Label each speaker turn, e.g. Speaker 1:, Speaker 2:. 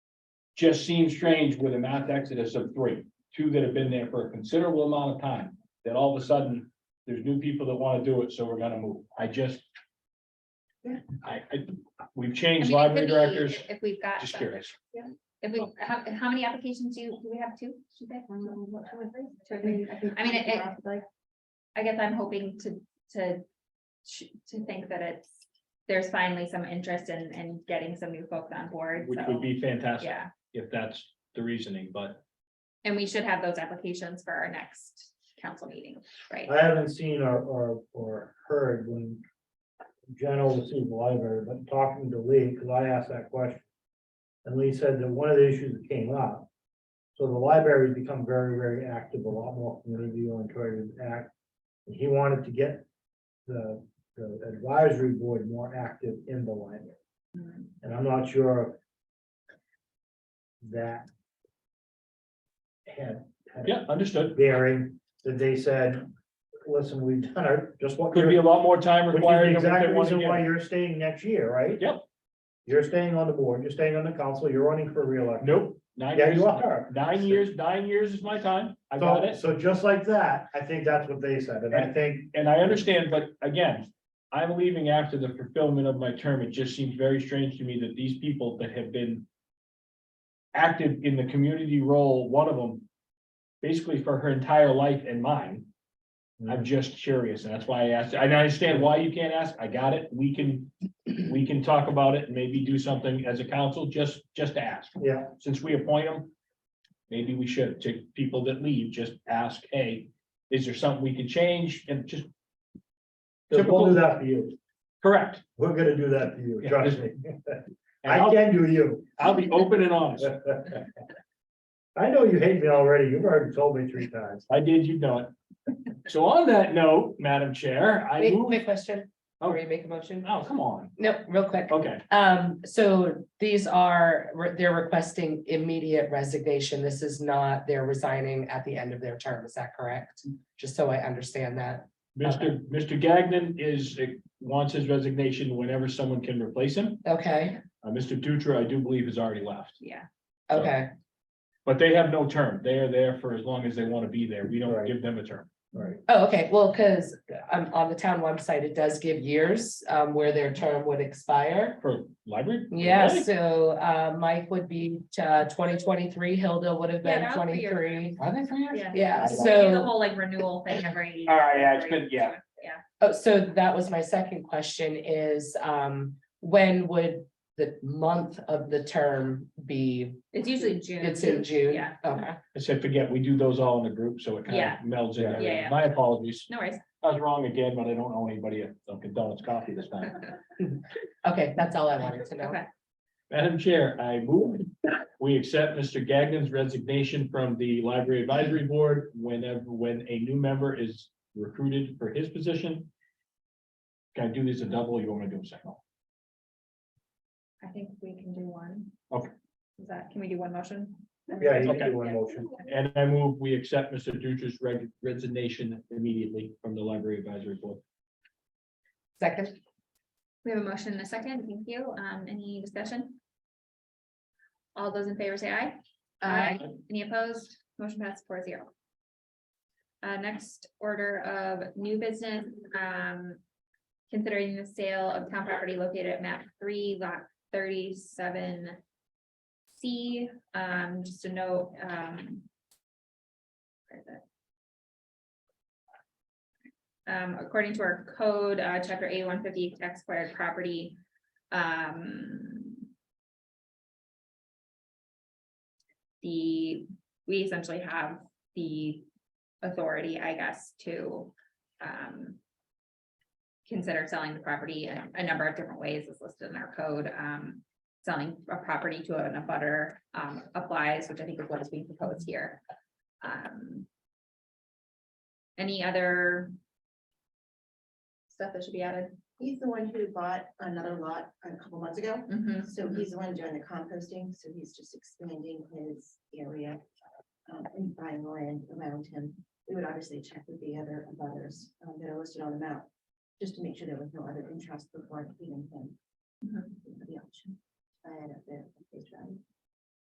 Speaker 1: Just seems strange with a mass exodus of three, two that have been there for a considerable amount of time, that all of a sudden, there's new people that wanna do it, so we're gonna move. I just. I, I, we've
Speaker 2: I
Speaker 1: changed
Speaker 2: mean, it
Speaker 1: library
Speaker 2: could be
Speaker 1: directors,
Speaker 2: If we've got,
Speaker 1: just
Speaker 2: some-
Speaker 1: curious.
Speaker 2: if we, how, how many applications do, you- do we have two? Should they?
Speaker 3: I mean, I
Speaker 2: mean,
Speaker 3: mean,
Speaker 2: it- it- I guess I'm hoping to, to, sh- to think that it's, there's finally some interest in, in getting some new folks on board.
Speaker 1: Which
Speaker 2: so,
Speaker 1: would be fantastic
Speaker 2: Yeah,
Speaker 1: if that's the reasoning, but
Speaker 2: and we should have those applications for our next council meeting, right?
Speaker 4: I haven't seen or, or, or heard when Jen oversees the library, but talking to Lee, because I asked that question. And Lee said that one of the issues that came up, so the library's become very, very active, a lot more community oriented act. And He wanted to get the, the advisory board more active in the library,
Speaker 2: Mm,
Speaker 4: and I'm not sure that had. had a
Speaker 1: yeah, understood.
Speaker 4: bearing that they said, listen, we've done our, just what.
Speaker 1: Could be a lot more time
Speaker 4: Which is
Speaker 1: required.
Speaker 4: the
Speaker 1: than what
Speaker 4: exact
Speaker 1: they wanna
Speaker 4: reason
Speaker 1: give.
Speaker 4: why you're staying next year, right?
Speaker 1: Yep.
Speaker 4: You're staying on the board, you're staying on the council, you're running for reelection.
Speaker 1: Nope, nine
Speaker 4: Yeah,
Speaker 1: years,
Speaker 4: you are.
Speaker 1: nine years, nine years is my time. I got
Speaker 4: So,
Speaker 1: it.
Speaker 4: so just like that, I think that's what they said, and I think,
Speaker 1: And I understand, but again, I'm leaving after the fulfillment of my term. It just seems very strange to me that these people that have been active in the community role, one of them, basically for her entire life and mine.
Speaker 4: Mm.
Speaker 1: I'm just curious, and that's why I asked. And I understand why you can't ask. I got it. We can, we can talk about it and maybe do something as a council, just, just to ask
Speaker 4: yeah,
Speaker 1: since we appoint them, maybe we should, to people that leave, just ask, hey, is there something we can change and just
Speaker 4: we
Speaker 1: Typical-
Speaker 4: will do that for you,
Speaker 1: correct?
Speaker 4: we're gonna do that for you,
Speaker 1: Yeah.
Speaker 4: trust me,
Speaker 1: And
Speaker 4: I
Speaker 1: I'll,
Speaker 4: can do you.
Speaker 1: I'll be open and honest.
Speaker 4: I know you hate me already, you've already told me three times,
Speaker 1: I did, you know it. So on that note, Madam Chair, I
Speaker 3: Wait,
Speaker 1: move,
Speaker 3: quick question,
Speaker 1: Oh.
Speaker 3: before you make a motion,
Speaker 1: oh, come on,
Speaker 3: no, real quick,
Speaker 1: okay,
Speaker 3: um, so these are, they're requesting immediate resignation, this is not, they're resigning at the end of their term, is that correct? Just so I understand that,
Speaker 1: Mr. Mr. Gagnon is, wants his resignation whenever someone can replace him.
Speaker 3: okay,
Speaker 1: Uh, Mr. Dutra, I do believe, has already left,
Speaker 2: Yeah,
Speaker 3: okay,
Speaker 1: but they have no term. They are there for as long as they want to be there. We don't
Speaker 4: Right.
Speaker 1: give them a term.
Speaker 4: right,
Speaker 3: oh, okay, well, because um, on the town website, it does give years, um, where their term would expire.
Speaker 1: For library?
Speaker 3: Yeah,
Speaker 1: Really?
Speaker 3: so, uh, Mike would be, uh, twenty twenty-three, Hilda would have
Speaker 2: Yeah,
Speaker 3: been
Speaker 2: that was three years.
Speaker 3: twenty-three,
Speaker 1: Are they three years?
Speaker 2: yeah.
Speaker 3: yeah,
Speaker 2: We do The
Speaker 3: so.
Speaker 2: whole like renewal thing every.
Speaker 1: All right, yeah, it's been- yeah.
Speaker 3: Oh, so that was my second question is, um, when would the month of the term be?
Speaker 2: It's usually June.
Speaker 3: It's in June? Oh,
Speaker 2: Yeah.
Speaker 3: Okay,
Speaker 1: I said, forget, we do those all in a group, so it kind
Speaker 2: Yeah.
Speaker 1: of melds in.
Speaker 4: Yeah.
Speaker 1: everything.
Speaker 2: Yeah, yeah.
Speaker 1: My apologies.
Speaker 2: No worries.
Speaker 1: I was wrong again, but I don't owe anybody a Dunkin' Donuts coffee this time.
Speaker 3: okay, that's all I wanted to know.
Speaker 2: Okay.
Speaker 1: Madam Chair, I move, we accept Mr. Gagnon's resignation from the Library Advisory Board whenever, when a new member is recruited for his position. Can I do these a double? or You want me to do them second?
Speaker 2: I think we can do one.
Speaker 1: Okay.
Speaker 2: Is that, can we do one motion?
Speaker 4: yeah, you can
Speaker 1: Okay.
Speaker 4: do one motion.
Speaker 1: And I move, we accept Mr. Dutra's reg- resignation immediately from the Library Advisory Board.
Speaker 3: Second,
Speaker 2: We have a motion and a second. Thank you. Um, any discussion? All those in favor say aye.
Speaker 3: Aye.
Speaker 2: Any opposed? Motion passed four zero. Uh, next order of new business, um. Considering the sale of town property located at map three lot thirty-seven. C, um, just a note, um. where is it? Um, according to our code, uh, chapter A one fifty tax acquired property, um. the, we essentially have the authority, I guess, to um. Consider selling the property in a number of different ways is listed in our code. Um, selling a property to an abutter um applies, which I think is what is being proposed here. Um. Any other? Stuff that should be added?
Speaker 5: He's the one who bought another lot a couple months ago,
Speaker 2: Mhm.
Speaker 5: so he's the one doing the composting, so he's just expanding his area. um, and buying land around him, we would obviously check with the other abutters um, that are listed on the map, just to make sure there was no other interest before giving him
Speaker 2: Mhm.
Speaker 5: the option. to buy it at their face value.